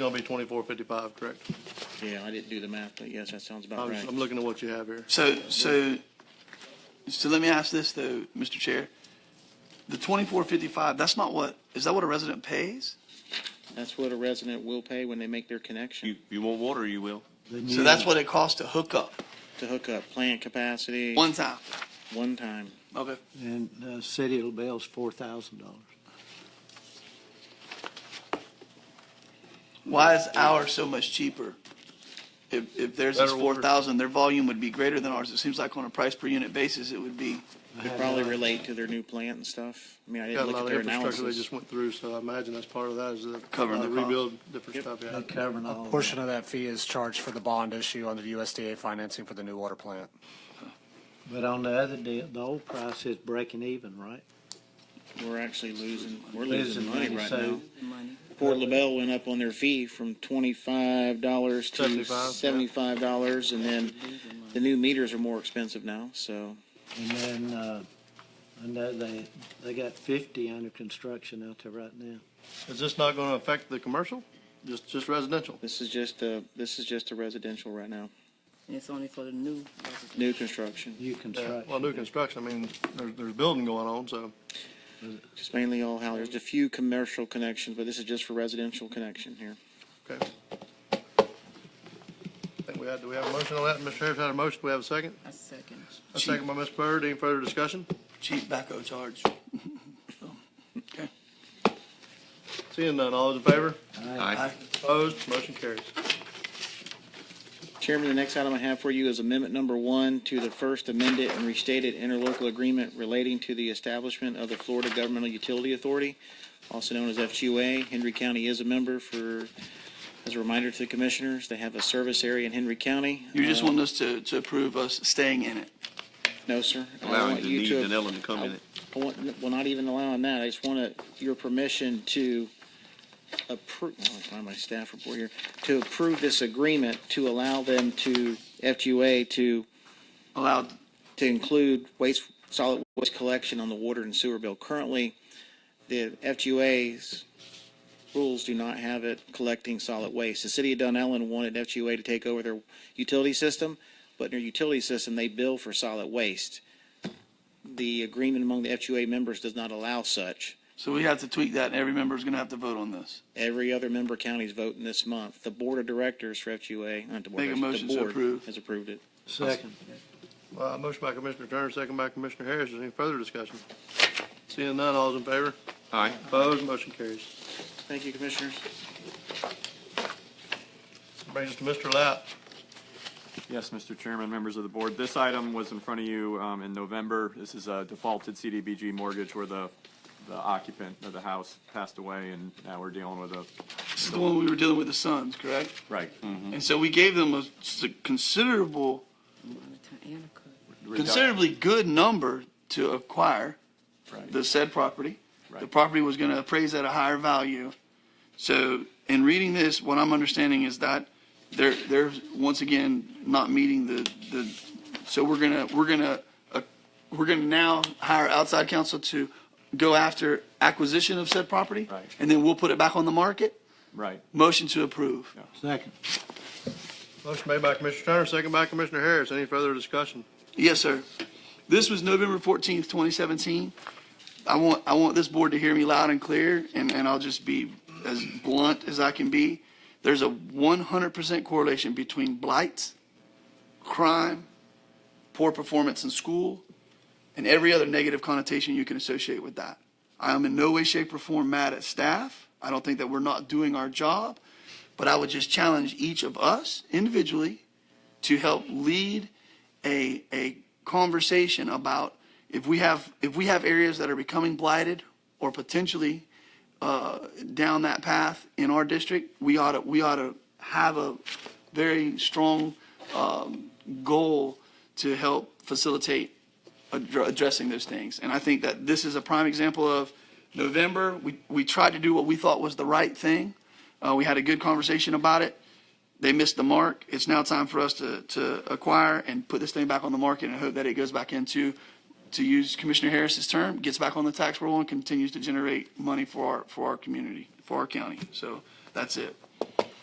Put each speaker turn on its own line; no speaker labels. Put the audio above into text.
Gonna be twenty-four fifty-five, correct?
Yeah, I didn't do the math, but yes, that sounds
I
about
was,
right.
I'm looking at what you have here.
So, so, so let me ask this though, Mr. Chair. The twenty-four fifty-five, that's not what, is that what a resident pays?
That's what a resident will pay when they make their connection
You, you want water, you will.
So that's what it costs to hook up,
to hook up plant capacity
one time.
one time.
Okay.
And uh, the city of LaBelle's four thousand dollars.
Why is ours so much cheaper? If, if theirs is
Better
four
water.
thousand, their volume would be greater than ours. It seems like on a price per unit basis, it would be.
Could
uh,
probably relate to their new plant and stuff. I mean, I
Got
didn't
a
look
lot
at
of
their
infrastructure they
analysis.
just went through, so I imagine that's part of that is the.
Covering the
uh,
cost.
Rebuild, different stuff, yeah.
They're covering
A
all of
portion
that.
of that fee is charged for the bond issue under the USDA financing for the new water plant.
But on the other deal, the old price is breaking even, right?
We're actually losing, we're losing
Losing
money
money,
right
so-
now. Port LaBelle went up on their fee from twenty-five dollars to
75, yeah.
seventy-five dollars, and then the new meters are more expensive now, so.
And then, uh, I know they, they got fifty under construction out there right now.
Is this not gonna affect the commercial? Just, just residential?
This is just a, this is just a residential right now,
And it's only for the new residents.
new construction.
New
Yeah,
construction.
Well, new construction, I mean, there's, there's building going on, so.
It's mainly all how, there's a few commercial connections, but this is just for residential connection here.
Okay. I think we had, do we have a motion on that? Mr. Harris had a motion, do we have a second?
A second.
A second by Ms. Byrd, any further discussion?
Cheap backhoe charge.
Seeing none, all those in favor?
Aye.
Opposed, motion carries.
Chairman, the next item I have for you is amendment number one to the first amended and restated interlocal agreement relating to the establishment of the Florida Governmental Utility Authority, also known as FQA. Henry County is a member for, as a reminder to the commissioners, they have a service area in Henry County.
You just
Uh,
want us to, to approve us staying in it.
No, sir. I
Allowing
want
the
you
needs
to-
and element to come in it.
I want, well, not even allowing that, I just want to- your permission to approve, I want to find my staff report here, to approve this agreement to allow them to, FQA to
Allowed,
to include waste, solid waste collection on the water and sewer bill. Currently, the FGUA's rules do not have it collecting solid waste. The city of Dunellen wanted FGUA to take over their utility system, but in their utility system, they bill for solid waste. The agreement among the FGUA members does not allow such.
so we have to tweak that and every member is gonna have to vote on this.
Every other member county's voting this month. The board of directors for FGUA, not the board,
Make a
of directors,
motion
the
to
board
approve.
has approved it.
Second.
Uh, motion by Commissioner Turner, second by Commissioner Harris, is there any further discussion? Seeing none, all those in favor?
Aye.
Opposed, motion carries.
Thank you, commissioners.
Brings us to Mr. Lapp.
Yes, Mr. Chairman, members of the board. This item was in front of you um, in November. This is a defaulted CDBG mortgage where the the occupant of the house passed away, and now we're dealing with a,
This is the one we were dealing with the sons, correct?
right.
And so we gave them a s- considerable,
Annika.
considerably good number to acquire
Right.
the said property. The
Right.
property was gonna appraise at a higher value. So in reading this, what I'm understanding is that they're, they're, once again, not meeting the, the, so we're gonna, we're gonna, uh, we're gonna now hire outside counsel to go after acquisition of said property?
Right.
And then we'll put it back on the market?
Right.
Motion to approve.
Second.
Motion made by Commissioner Turner, second by Commissioner Harris. Any further discussion?
Yes, sir. This was November fourteenth, twenty seventeen. I want, I want this board to hear me loud and clear, and, and I'll just be as blunt as I can be. There's a one hundred percent correlation between blights, crime, poor performance in school, and every other negative connotation you can associate with that. I am in no way, shape, or form mad at staff. I don't think that we're not doing our job, but I would just challenge each of us individually to help lead a, a conversation about if we have, if we have areas that are becoming blighted or potentially uh, down that path in our district, we ought to, we ought to have a very strong um, goal to help facilitate addr- addressing those things. And I think that this is a prime example of November, we, we tried to do what we thought was the right thing. Uh, We had a good conversation about it they missed the mark. It's now time for us to, to acquire and put this thing back on the market and hope that it goes back into, to use Commissioner Harris's term, gets back on the tax roll and continues to generate money for our, for our community, for our county. So that's it.